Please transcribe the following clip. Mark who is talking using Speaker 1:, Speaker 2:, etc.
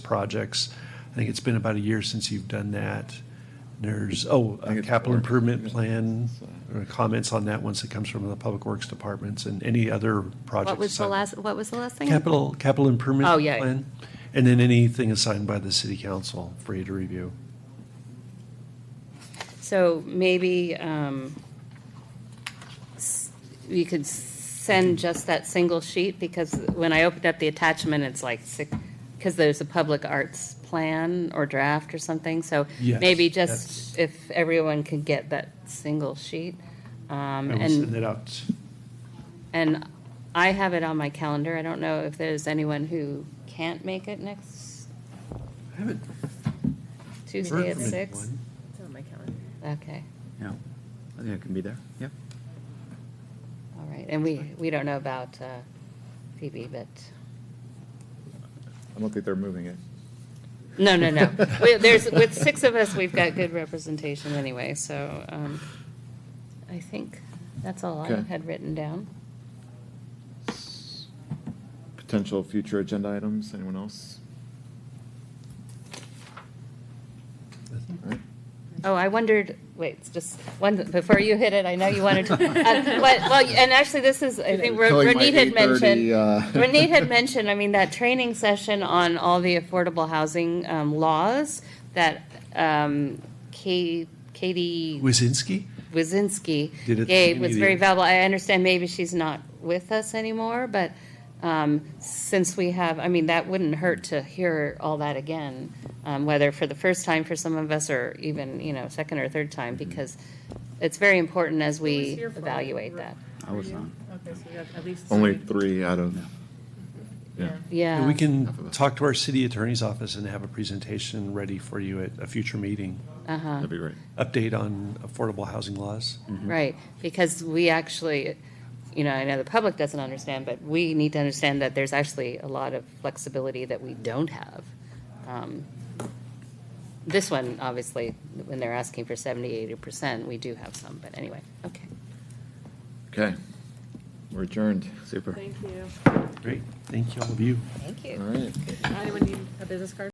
Speaker 1: projects. I think it's been about a year since you've done that. There's, oh,
Speaker 2: think
Speaker 1: a
Speaker 2: it's
Speaker 1: capital
Speaker 2: four.
Speaker 1: improvement plan, or comments on that once it comes from the public works departments and any other projects.
Speaker 3: What was the
Speaker 1: assigned-
Speaker 3: last, what was the last thing?
Speaker 1: Capital, capital improvement.
Speaker 3: Oh, yeah.
Speaker 1: plan, And then anything assigned by the city council for you to review.
Speaker 3: So maybe um, s- you could send just that single sheet, because when I opened up the attachment, it's like six, because there's a public arts plan or draft or something, so
Speaker 1: Yes,
Speaker 3: maybe
Speaker 1: that's-
Speaker 3: just if everyone could get that single sheet. um,
Speaker 1: I will
Speaker 3: And
Speaker 1: send it out.
Speaker 3: And I have it on my calendar. I don't know if there's anyone who can't make it next
Speaker 1: I haven't heard
Speaker 3: Tuesday at
Speaker 1: from
Speaker 3: six.
Speaker 1: anyone.
Speaker 4: It's on my calendar.
Speaker 3: Okay,
Speaker 2: Yeah, I think I can be there, yeah.
Speaker 3: all right. And we, we don't know about uh, Phoebe, but,
Speaker 5: I don't think they're moving it.
Speaker 3: no, no, no. We- There's, with six of us, we've got good representation anyway, so um, I think that's all I
Speaker 5: Okay.
Speaker 3: had written down.
Speaker 5: Potential future agenda items, anyone else? All right.
Speaker 3: Oh, I wondered, wait, it's just, one, before you hit it, I know you wanted to, uh, what- well, and actually, this is, I think
Speaker 5: Killing my
Speaker 3: Renee had
Speaker 5: 8:30,
Speaker 3: mentioned,
Speaker 5: uh,
Speaker 3: Renee had mentioned, I mean, that training session on all the affordable housing um, laws that um, Ka- Katie
Speaker 1: Wazinski?
Speaker 3: Wazinski
Speaker 1: Did it at the
Speaker 3: gave
Speaker 1: beginning
Speaker 3: was
Speaker 1: of the
Speaker 3: very
Speaker 1: year.
Speaker 3: valuable. I understand maybe she's not with us anymore, but um, since we have, I mean, that wouldn't hurt to hear all that again, um, whether for the first time for some of us or even, you know, second or third time, because it's very important as
Speaker 4: Who was
Speaker 3: we
Speaker 4: here for it?
Speaker 3: evaluate that.
Speaker 2: I was not.
Speaker 4: Okay, so you have at least.
Speaker 5: Only three out of, yeah.
Speaker 1: And
Speaker 3: Yeah.
Speaker 1: We
Speaker 5: Half of
Speaker 1: can
Speaker 5: us.
Speaker 1: talk to our city attorney's office and have a presentation ready for you at a future meeting.
Speaker 3: Uh-huh.
Speaker 5: That'd be great.
Speaker 1: Update on affordable housing laws.
Speaker 3: Right, because we actually, you know, I know the public doesn't understand, but we need to understand that there's actually a lot of flexibility that we don't have. Um, This one, obviously, when they're asking for 70, 80 percent, we do have some, but anyway, okay.
Speaker 5: Okay, we're adjourned.
Speaker 2: Super.
Speaker 4: Thank you.
Speaker 1: Great, thank you, all of you.
Speaker 3: Thank
Speaker 5: All right.
Speaker 4: Anyone need a business card?